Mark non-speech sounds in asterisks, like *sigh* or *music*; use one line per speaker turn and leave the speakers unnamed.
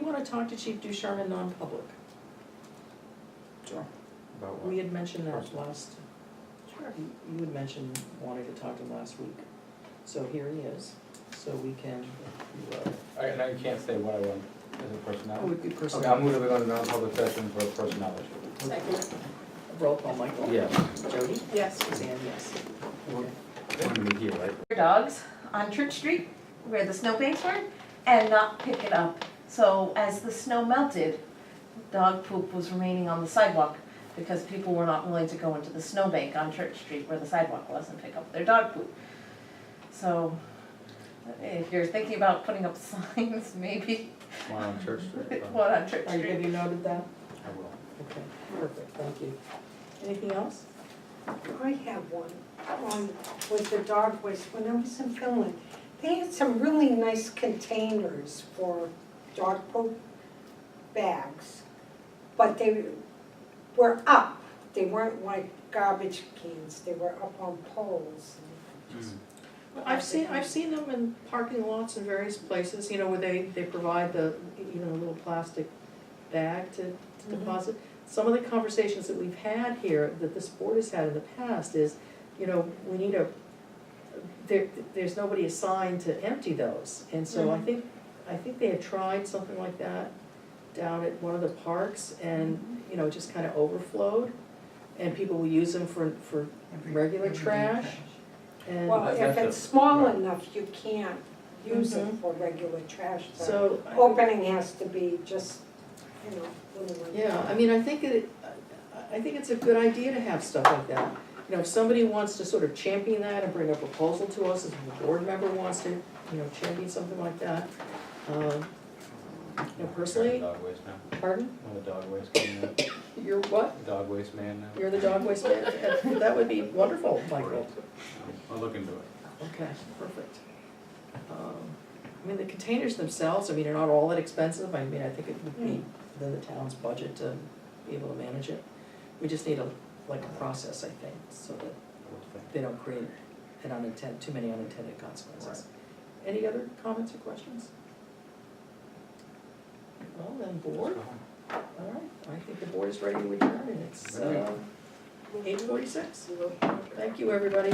wanna talk to Chief Ducharme in non-public?
Sure.
About
We
what?
had mentioned that
Personal.
last, you you had mentioned wanting to talk to him last week. So here he is, so we can, uh,
I, and I can't say what I want as a
oh,
personnel.
would be
Okay, I'll
personal,
move to go to non-public session for personnel issue.
Second.
roll call, Michael.
Yeah,
Jody?
Yes.
Suzanne, yes.
we're, we're gonna be here, right?
their dogs on Church Street where the snowbanks were and not pick it up. So as the snow melted, dog poop was remaining on the sidewalk because people were not willing to go into the snowbank on Church Street where the sidewalk was and pick up their dog poop. So if you're thinking about putting up *laughs* signs, maybe
One
*laughs*
on Church Street. but
one on Church
Are you, have
Street.
you noted that?
I will.
Okay, perfect, thank you. Anything else?
I have one, one with the dog waste, when I was in Finland, they had some really nice containers for dog poop bags, but they were up, they weren't like garbage cans, they were up on poles.
Mm.
mm. I've seen, I've seen them in parking lots in various places, you know, where they, they provide the, you know, little plastic bag to to deposit. Some of the conversations that we've had here, that this board has had in the past is, you know, we need a, there, there's nobody assigned to empty those. And so I think, I think they had tried something like that down at one of the parks and, you know, it just kind of overflowed. And people will use them for, for regular trash and.
Well, if
That's a-
it's small
right.
enough, you can't use
Mm-hmm.
it for regular trash, but
So, I-
opening has to be just, you know, little one.
yeah, I mean, I think it, I- I think it's a good idea to have stuff like that. You know, if somebody wants to sort of champion that and bring a proposal to us, if a board member wants to, you know, champion something like that. um, No, personally-
Dog waste now.
Pardon?
I'm a dog waste man now.
You're what?
Dog waste man now.
You're the dog waste man? *laughs* That would be wonderful, Michael.
I'll look into it.
Okay, perfect. Um, I mean, the containers themselves, I mean, are not all that expensive, I mean, I think it would be within the town's budget to be able to manage it. We just need a, like a process, I think, so that they don't create an unintended, too many unintended consequences. Any other comments or questions? Well, then, board, all right, I think the board is ready to adjourn, and it's,
Ready.
uh, eight forty-six. Thank you, everybody.